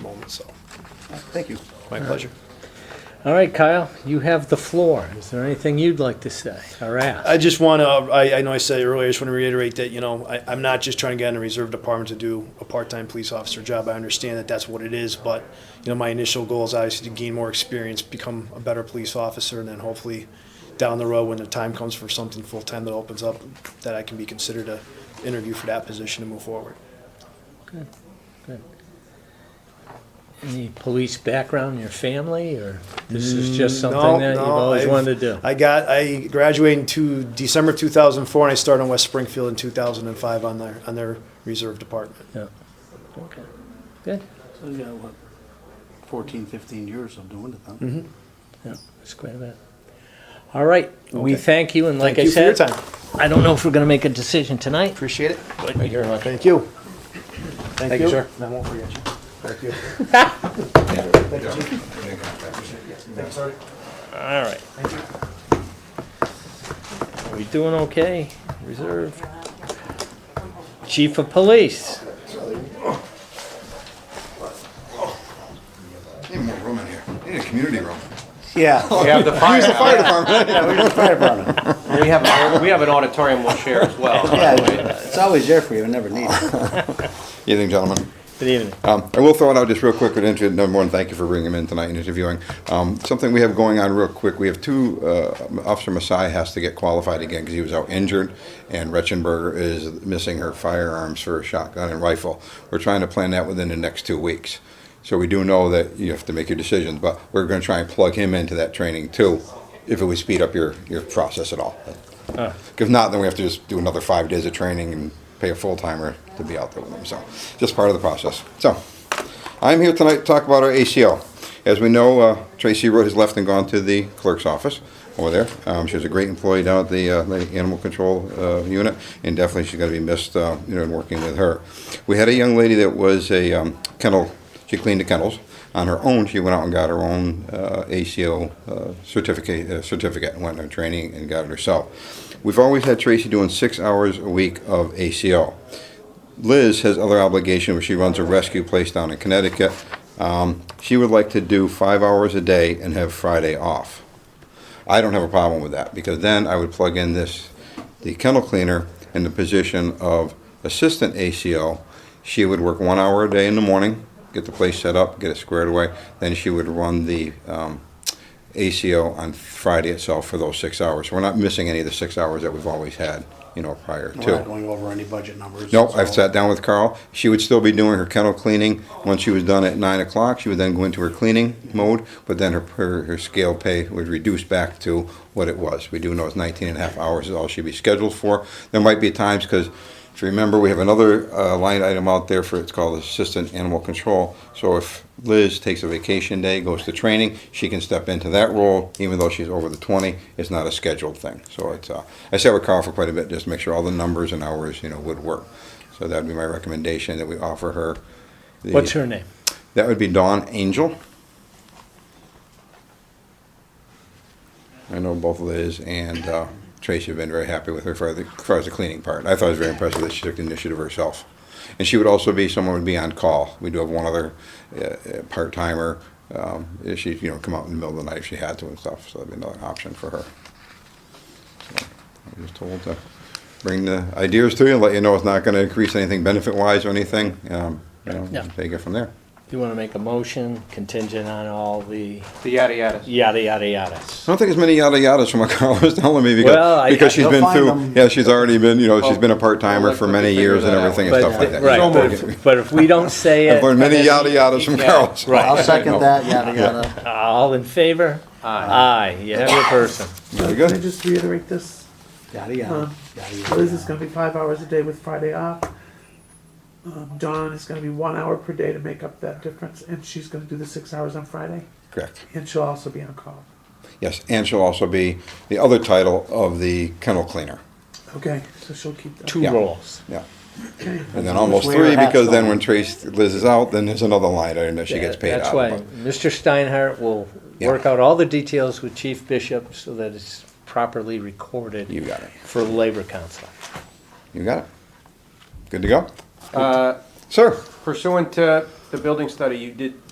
moment, so. Thank you. My pleasure. All right, Kyle, you have the floor. Is there anything you'd like to say or ask? I just want to, I, I know I said it earlier, I just want to reiterate that, you know, I, I'm not just trying to get in the reserve department to do a part-time police officer job. I understand that that's what it is, but, you know, my initial goal is obviously to gain more experience, become a better police officer, and then hopefully down the road, when the time comes for something full-time that opens up, that I can be considered to interview for that position and move forward. Any police background in your family, or this is just something Mm, No, that you've no, always I've- wanted to do? I got I graduated in two, December 2004 and I started in West Springfield in 2005 on their on their reserve department. Okay. Good, So you got what, 14, 15 years of doing it then? yeah, that's quite a bit. All right, we Okay. thank you, and like Thank I you said, for your time. I don't know if we're gonna make a decision tonight, Appreciate it. but you're like, Thank you. Thank, you, sir. And I won't forget you. Thank you. all right. Are we doing okay? Reserve. Chief of Police, Need more room in here. Need a community room. Yeah, We have the fire. Fire department. fire department. We have, we have an auditorium we'll share as well. Yeah, it's always there for you, I never need it. Evening, gentlemen. good evening. Um, I will throw it out just real quick. But into, number one, thank you for bringing him in tonight and interviewing. Um, something we have going on real quick. We have two. Uh, Officer Masai has to get qualified again because he was out injured, and Retchenberger is missing her firearms for a shotgun and rifle. We're trying to plan that within the next two weeks. So we do know that you have to make your decisions, but we're going to try and plug him into that training too, if it would speed up your, your process at all. If not, then we have to just do another five days of training and pay a full timer to be out there with them. So, just part of the process. So, I'm here tonight to talk about our ACO. As we know, uh, Tracy Road has left and gone to the clerk's office over there. Um, she was a great employee down at the, uh, the animal control uh, unit, and definitely she's going to be missed, uh, you know, in working with her. We had a young lady that was a um, kennel. She cleaned the kennels on her own. She went out and got her own uh, ACO uh, certificate, uh, certificate, and went on training and got it herself. We've always had Tracy doing six hours a week of ACO. Liz has other obligation where she runs a rescue place down in Connecticut. Um, she would like to do five hours a day and have Friday off. I don't have a problem with that because then I would plug in this, the kennel cleaner in the position of assistant ACO. She would work one hour a day in the morning, get the place set up, get it squared away. Then she would run the um, ACO on Friday itself for those six hours. We're not missing any of the six hours that we've always had, you know, prior to. We're not going over any budget numbers. Nope, I've so- sat down with Carl. She would still be doing her kennel cleaning. Once she was done at nine o'clock, she would then go into her cleaning mode, but then her, her, her scale pay would reduce back to what it was. We do know it's 19 and a half hours is all she'd be scheduled for. There might be times, because if you remember, we have another uh, line item out there for, it's called Assistant Animal Control. So if Liz takes a vacation day, goes to training, she can step into that role, even though she's over the 20. It's not a scheduled thing. So it's, uh, I sat with Carl for quite a bit, just to make sure all the numbers and hours, you know, would work. So that'd be my recommendation that we offer her. the- What's her name? That would be Dawn Angel. I know both Liz and uh, Tracy have been very happy with her for the, as far as the cleaning part. I thought it was very impressive that she took the initiative herself. And she would also be someone who would be on call. We do have one other uh, uh, part timer. Um, if she you know come out in the middle of the night if she had to and stuff. So that'd be another option for her. I was told to bring the ideas to you and let you know it's not going to increase anything benefit wise or anything. Um, you know, Yeah. Take it from there. You wanna make a motion contingent on all the The yada yada. yada, yada, yadas? I don't think as many yada yadas from what Carl was telling me because, Well, I- because she's You'll been find through, them. yeah, she's already been, you know, she's Well, been a part well, timer let- for let me many figure years and that out. everything and But- stuff like that. right. So But if- But if we don't say it. I've learned many then- yada yadas from Yeah. Carl. so- Right. I'll second that, yada, yada. Uh, All in favor? Aye. Aye, you have your person. Very Can I good. just reiterate this? Yada, yada. Um, yada, Liz is yada. gonna be five hours a day with Friday off. Um, Dawn is gonna be one hour per day to make up that difference, and she's gonna do the six hours on Friday, Correct. and she'll also be on call. Yes, and she'll also be the other title of the kennel cleaner. Okay, so she'll keep that. Two Yeah. rolls. Yeah. Okay. And then almost Just wear three a hat, because then Dawn. when Trace, Liz is out, then there's another line item that she gets paid That's out why of. Mr. Steinhardt will Yeah. work out all the details with Chief Bishop so that it's properly recorded. You got it. For Labor Council. You got it. Good to go? Uh, Sir, Pursuant to the building study, you did